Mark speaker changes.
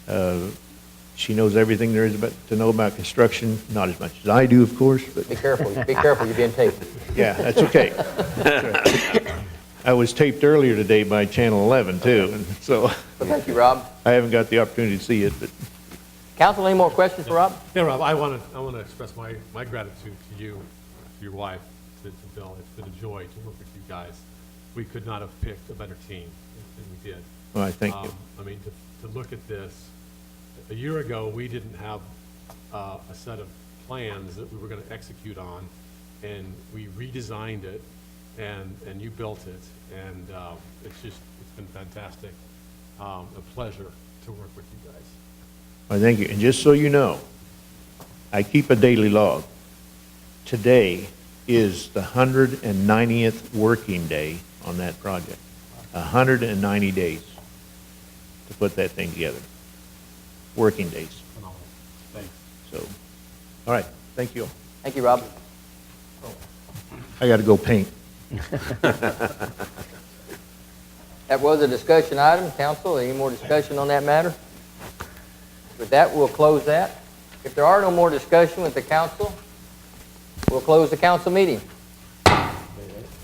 Speaker 1: Uh, She knows everything there is about, to know about construction, not as much as I do, of course, but
Speaker 2: Be careful, be careful, you're being taped.
Speaker 1: yeah, that's okay. I was taped earlier today by Channel 11 too, and so
Speaker 2: Well, thank you, Rob.
Speaker 1: I haven't got the opportunity to see it, but
Speaker 2: Council, any more questions for Rob?
Speaker 3: Yeah, Rob, I want to, I want to express my, my gratitude to you, to your wife, to to Bill. It's been a joy to work with you guys. We could not have picked a better team than we did.
Speaker 1: Well, I thank you.
Speaker 3: Um, I mean, to, to look at this, a year ago, we didn't have uh, a set of plans that we were going to execute on, and we redesigned it, and, and you built it, and uh, it's just, it's been fantastic. Um, A pleasure to work with you guys.
Speaker 1: I thank you. And just so you know, I keep a daily log. Today is the 190th working day on that project. 190 days to put that thing together. Working days.
Speaker 3: Phenomenal. Thanks.
Speaker 1: So, all right, thank you.
Speaker 2: Thank you, Rob.
Speaker 1: I got to go paint.
Speaker 2: That was a discussion item. Council, any more discussion on that matter? With that, we'll close that. If there are no more discussion with the council, we'll close the council meeting.